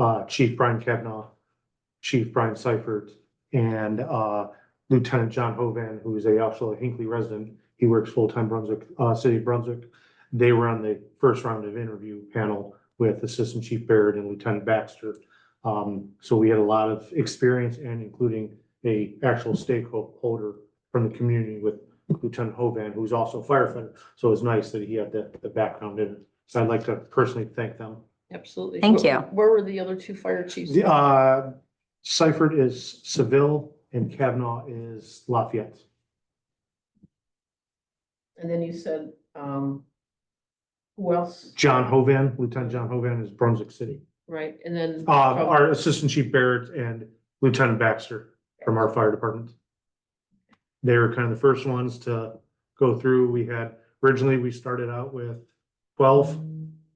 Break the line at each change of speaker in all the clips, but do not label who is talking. uh, Chief Brian Kavanaugh, Chief Brian Seifert, and, uh, Lieutenant John Hovan, who is a also a Hinkley resident. He works full-time Brunswick, uh, City of Brunswick. They were on the first round of interview panel with Assistant Chief Barrett and Lieutenant Baxter. Um, so we had a lot of experience and including a actual stakeholder from the community with Lieutenant Hovan, who's also a firefighter. So it was nice that he had the, the background in it. So I'd like to personally thank them.
Absolutely.
Thank
Where-
you.
Where were the other two fire chiefs?
The, uh, Seifert is Seville and Kavanaugh is Lafayette.
And then you said, um, who else?
John Hovan, Lieutenant John Hovan is Brunswick City.
Right, and then.
Uh, our Assistant Chief Barrett and Lieutenant Baxter from our fire department. They were kind of the first ones to go through. We had, originally, we started out with twelve.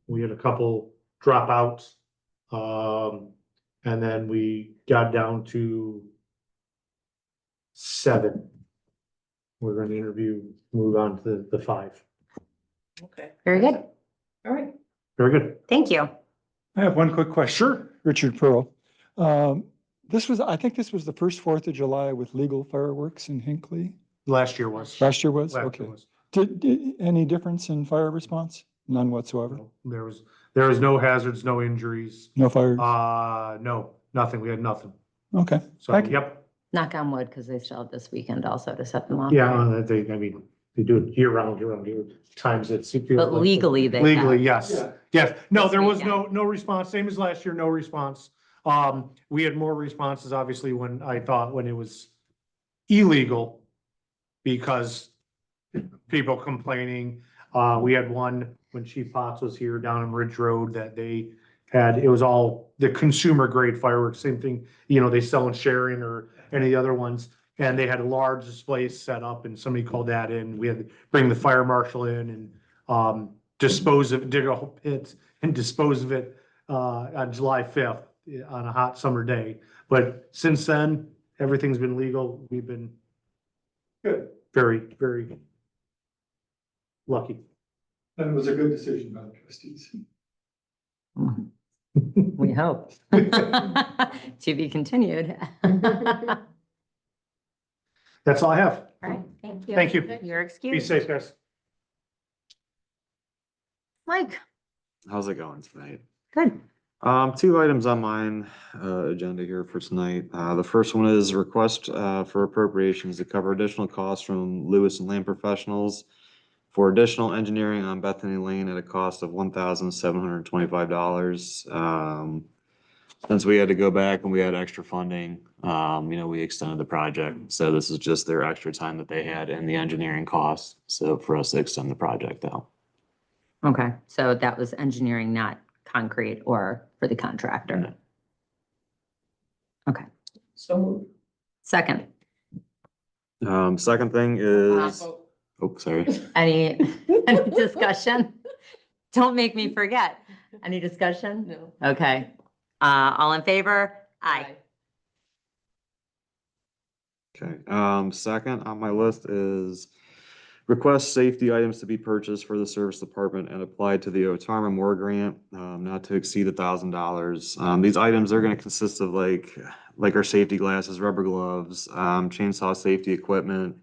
We had a couple dropouts. Um, and then we got down to seven. We're gonna interview, move on to the five.
Okay,
Very good.
all right.
Very good.
Thank you.
I have one quick question. Richard Pearl. Um, This was, I think this was the first Fourth of July with legal fireworks in Hinckley.
Last year was.
Last year was?
Last
Okay.
year was.
Did, did- any difference in fire response? None whatsoever.
There was, there was no hazards, no injuries.
No fires?
Uh, no, nothing. We had nothing.
Okay.
So,
Thank you.
yep.
Knock on wood, because they still have this weekend also to set them off.
Yeah, uh, they, I mean, they do it year round, year round, year times it's.
But legally, they have.
Legally, yes, yes. No,
This
there was no, no response. Same as last year, no response. Um, we had more responses, obviously, when I thought when it was illegal because people complaining. Uh, we had one when Chief Potts was here down in Ridge Road that they had, it was all the consumer grade fireworks, same thing, you know, they sell in Sharon or any of the other ones. And they had a large display set up and somebody called that in. We had to bring the fire marshal in and um, dispose of, dig a whole pit and dispose of it uh, on July fifth on a hot summer day. But since then, everything's been legal. We've been
Good,
very, very lucky.
then it was a good decision by the trustees.
We hope. To be continued. All
That's all I have.
right, thank you.
Thank you.
Your
Be
excuse.
safe, guys.
Mike,
How's it going tonight?
good.
Um, two items on mine, uh, agenda here for tonight. Uh, the first one is request, uh, for appropriations to cover additional costs from Lewis and Lamb Professionals for additional engineering on Bethany Lane at a cost of one thousand seven hundred and twenty-five dollars. Um, since we had to go back and we had extra funding, um, you know, we extended the project. So this is just their extra time that they had and the engineering costs. So for us to extend the project out.
Okay, so that was engineering, not concrete or for the contractor.
No.
So moved.
Second,
Um, second thing
Uh,
is, oh, sorry.
any, any discussion? Don't make me forget. Any discussion?
No.
Okay, uh, all in favor? Aye.
Okay, um, second on my list is request safety items to be purchased for the service department and applied to the Otarma Moore Grant, um, not to exceed a thousand dollars. Um, these items are gonna consist of like, like our safety glasses, rubber gloves, um, chainsaw safety equipment.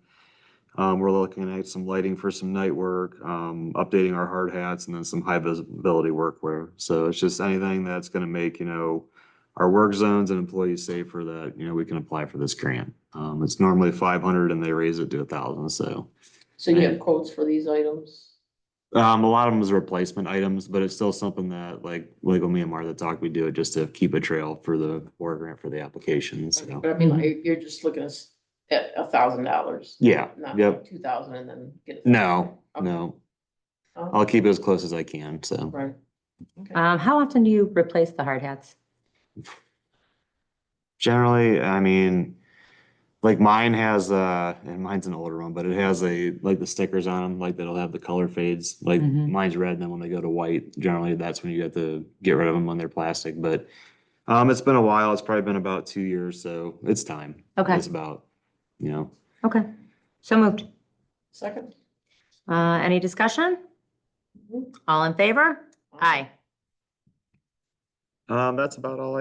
Um, we're looking at some lighting for some night work, um, updating our hard hats and then some high visibility workwear. So it's just anything that's gonna make, you know, our work zones and employees safer that, you know, we can apply for this grant. Um, it's normally five hundred and they raise it to a thousand, so.
So you have quotes for these items?
Um, a lot of them is replacement items, but it's still something that like legal Myanmar that talk, we do it just to keep a trail for the war grant for the application, so.
But I mean,
Mm-hmm.
like, you're just looking at s- at a thousand dollars.
Yeah,
Not
yep,
two thousand and then get. a
no,
thousand.
no,
Okay.
I'll keep it as close as I can, so.
Right.
Um, how often do you replace the hard hats?
Generally, I mean, like mine has uh and mine's an older one, but it has a like the stickers on them, like that'll have the color fades. Like
Mhm.
mine's red, and then when they go to white, generally that's when you have to get rid of them when they're plastic. But um, it's been a while. It's probably been about two years, so it's time.
Okay.
It's about, you know,
Okay, so moved.
Second?
Uh, any discussion? All in favor? Aye.
Um, that's about all